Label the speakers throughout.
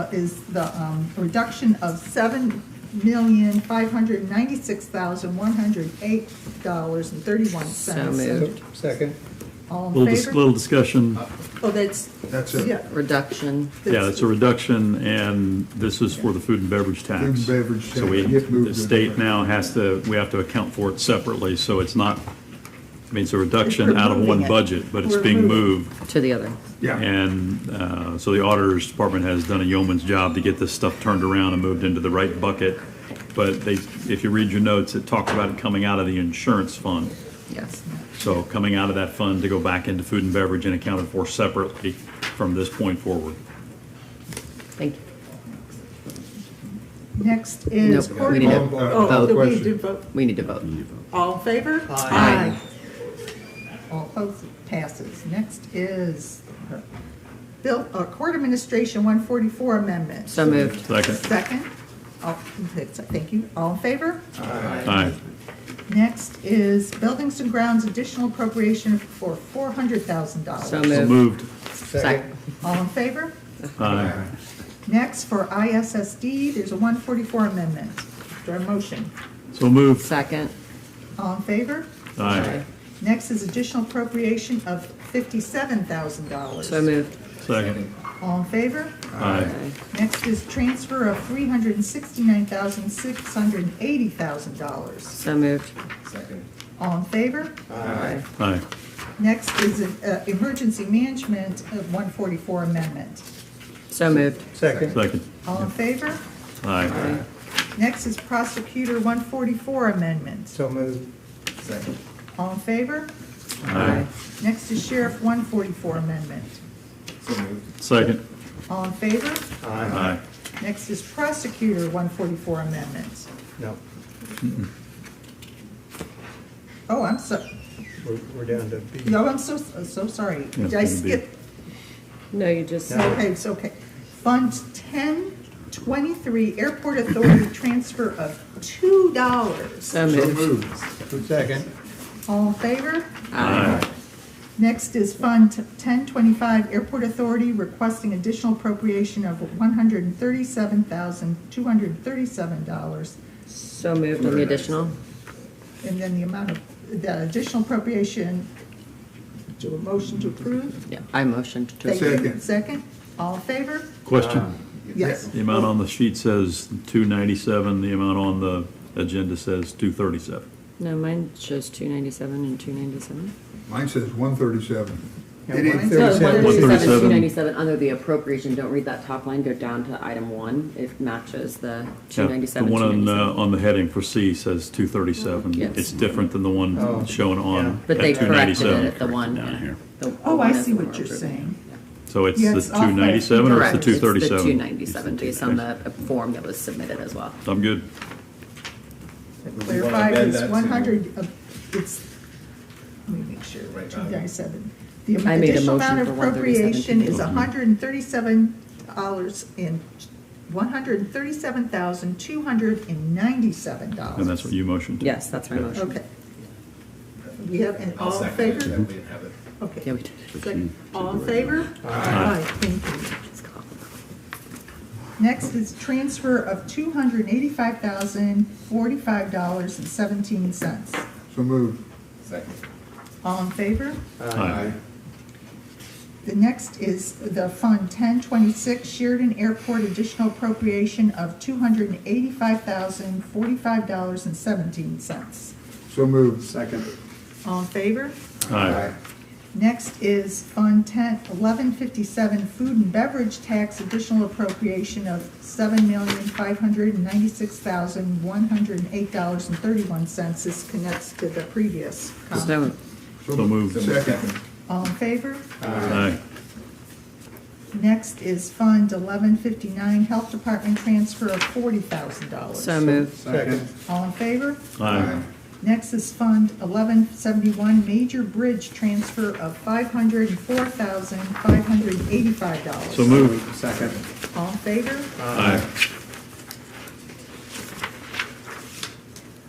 Speaker 1: up is the um, reduction of seven million, five hundred ninety-six thousand, one hundred eight dollars and thirty-one
Speaker 2: So
Speaker 1: cents.
Speaker 2: moved.
Speaker 3: Second,
Speaker 1: All
Speaker 4: Little,
Speaker 1: in
Speaker 4: dis-
Speaker 1: favor?
Speaker 4: little discussion,
Speaker 1: Oh, that's.
Speaker 5: That's it.
Speaker 1: Yeah.
Speaker 2: reduction.
Speaker 4: yeah, it's a reduction, and this is for the food and beverage tax.
Speaker 5: Food and beverage
Speaker 4: So we,
Speaker 5: tax, it moved
Speaker 4: the
Speaker 5: it.
Speaker 4: state now has to, we have to account for it separately, so it's not, I mean, it's a reduction out of
Speaker 1: moving
Speaker 4: one
Speaker 1: it.
Speaker 4: budget, but it's
Speaker 1: We're
Speaker 4: being
Speaker 1: moving.
Speaker 4: moved.
Speaker 2: To the other.
Speaker 5: Yeah,
Speaker 4: And uh, so the auditor's department has done a yeoman's job to get this stuff turned around and moved into the right bucket. But they, if you read your notes, it talks about it coming out of the insurance fund.
Speaker 2: Yes.
Speaker 4: So coming out of that fund to go back into food and beverage and accounted for separately from this point forward.
Speaker 2: Thank you.
Speaker 1: Next is.
Speaker 2: Nope, we need to
Speaker 1: court- Oh,
Speaker 5: vote.
Speaker 1: do we do vote?
Speaker 2: We need to vote.
Speaker 1: All in favor?
Speaker 2: Aye.
Speaker 1: All opposed, it passes. Next is Bill, uh, Court Administration 144 Amendment.
Speaker 2: So moved.
Speaker 4: Second,
Speaker 1: Second. All- Thank you. All in favor?
Speaker 4: aye.
Speaker 1: Next is Buildings and Grounds Additional Appropriation for $400,000.
Speaker 2: So
Speaker 4: So
Speaker 2: moved.
Speaker 4: moved,
Speaker 3: second,
Speaker 1: All in favor?
Speaker 4: aye.
Speaker 1: Next, for ISSD, there's a 144 Amendment. Do I have a motion?
Speaker 4: So moved,
Speaker 2: Second.
Speaker 1: All in favor?
Speaker 4: aye.
Speaker 1: Next is additional appropriation of $57,000.
Speaker 2: So moved.
Speaker 4: Second,
Speaker 1: All in favor?
Speaker 4: aye.
Speaker 1: Next is transfer of three hundred and sixty-nine thousand, six hundred and eighty thousand dollars.
Speaker 2: So moved.
Speaker 3: second,
Speaker 1: All in favor?
Speaker 2: Aye.
Speaker 4: Aye.
Speaker 1: Next is uh, emergency management of one forty-four amendment.
Speaker 2: So moved.
Speaker 3: second,
Speaker 4: Second,
Speaker 1: All in favor?
Speaker 4: aye.
Speaker 1: Next is prosecutor one forty-four amendment.
Speaker 3: so moved, second,
Speaker 1: All in favor?
Speaker 4: Aye.
Speaker 1: Next is sheriff one forty-four amendment.
Speaker 3: so moved,
Speaker 4: Second,
Speaker 1: All in favor?
Speaker 4: aye.
Speaker 1: Next is prosecutor one forty-four amendment.
Speaker 3: no,
Speaker 1: Oh, I'm so,
Speaker 3: we're, we're down to B.
Speaker 1: no, I'm so, so sorry.
Speaker 4: Yeah,
Speaker 1: Did I
Speaker 4: it's gonna be-
Speaker 1: skip
Speaker 2: No, you just,
Speaker 1: Okay, it's okay. Fund ten twenty-three, Airport Authority transfer of two dollars.
Speaker 2: so
Speaker 5: so
Speaker 2: moved.
Speaker 5: moved.
Speaker 3: Second,
Speaker 1: All in favor?
Speaker 4: Aye.
Speaker 1: Next is Fund ten twenty-five, Airport Authority requesting additional appropriation of one hundred and thirty-seven thousand, two hundred and thirty-seven dollars.
Speaker 2: So moved on the additional.
Speaker 1: And then the amount of, the additional appropriation, do a motion to approve?
Speaker 2: Yeah, I motioned to.
Speaker 1: Thank you.
Speaker 5: Second.
Speaker 1: Second, all in favor?
Speaker 4: Question,
Speaker 1: Yes.
Speaker 4: the amount on the sheet says two ninety-seven, the amount on the agenda says two thirty-seven.
Speaker 2: No, mine shows two ninety-seven and two ninety-seven.
Speaker 5: Mine says one thirty-seven.
Speaker 3: Yeah,
Speaker 5: It ain't
Speaker 3: 137.
Speaker 4: 137.
Speaker 2: Two ninety-seven, under the appropriation, don't read that top line, go down to item one. It matches the two ninety-seven,
Speaker 4: The
Speaker 2: two
Speaker 4: one on, uh,
Speaker 2: ninety-seven.
Speaker 4: on the heading for C says two thirty-seven.
Speaker 2: Yes.
Speaker 4: It's different than the
Speaker 1: Oh.
Speaker 4: one shown on
Speaker 2: But they
Speaker 4: at two
Speaker 2: corrected
Speaker 4: ninety-seven.
Speaker 2: it at the one.
Speaker 4: Down here.
Speaker 2: the- the
Speaker 1: Oh, I
Speaker 2: one at
Speaker 1: see
Speaker 2: the
Speaker 1: what
Speaker 2: one
Speaker 1: you're
Speaker 2: approved.
Speaker 1: saying.
Speaker 4: So it's
Speaker 1: Yeah,
Speaker 4: the
Speaker 1: it's off by-
Speaker 4: two ninety-seven or it's
Speaker 2: Correct.
Speaker 4: the two thirty-seven?
Speaker 2: It's the two ninety-seven, based on the form that was submitted as well.
Speaker 4: I'm good.
Speaker 1: Clarify,
Speaker 3: amend
Speaker 1: it's
Speaker 3: that to-
Speaker 1: one hundred, uh, it's, let me make sure,
Speaker 3: Right,
Speaker 1: two
Speaker 3: uh,
Speaker 1: ninety-seven. The
Speaker 2: I made a
Speaker 1: additional
Speaker 2: motion
Speaker 1: amount of
Speaker 2: for 137.
Speaker 1: appropriation is hundred and thirty-seven dollars and, one hundred and thirty-seven thousand, two hundred and ninety-seven dollars.
Speaker 4: And that's what you motioned to?
Speaker 2: Yes, that's my
Speaker 4: Yeah.
Speaker 2: motion.
Speaker 1: Okay. We have, and all in favor?
Speaker 4: Mm-hmm.
Speaker 1: Okay.
Speaker 2: Yeah, we did.
Speaker 1: Second. All in favor? Aye. Thank you.
Speaker 2: It's called-
Speaker 1: Next is transfer of two hundred and eighty-five thousand, forty-five dollars and seventeen cents.
Speaker 5: So moved.
Speaker 3: Second.
Speaker 1: All in favor?
Speaker 4: Aye.
Speaker 1: The next is the Fund 1026 Sheridan Airport additional appropriation of $285,045.17.
Speaker 5: So moved. Second.
Speaker 1: All in favor?
Speaker 4: Aye.
Speaker 1: Next is Fund 10 1157 Food and Beverage Tax additional appropriation of $7,596,108.31. This connects to the previous comment.
Speaker 2: So,
Speaker 4: So moved.
Speaker 5: Second.
Speaker 1: All in favor?
Speaker 4: Aye.
Speaker 1: Next is Fund eleven fifty-nine, Health Department transfer of forty thousand dollars.
Speaker 2: so moved.
Speaker 3: Second.
Speaker 1: All in favor?
Speaker 4: Aye.
Speaker 1: Next is Fund eleven seventy-one, Major Bridge transfer of five hundred and four thousand, five hundred and eighty-five dollars.
Speaker 4: So moved.
Speaker 3: Second.
Speaker 1: All in favor?
Speaker 4: Aye.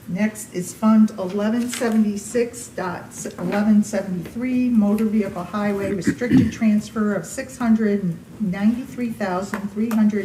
Speaker 1: Next is Fund eleven seventy-six dot eleven seventy-three, Motor Vehicle Highway restricted transfer of six hundred and ninety-three thousand, three hundred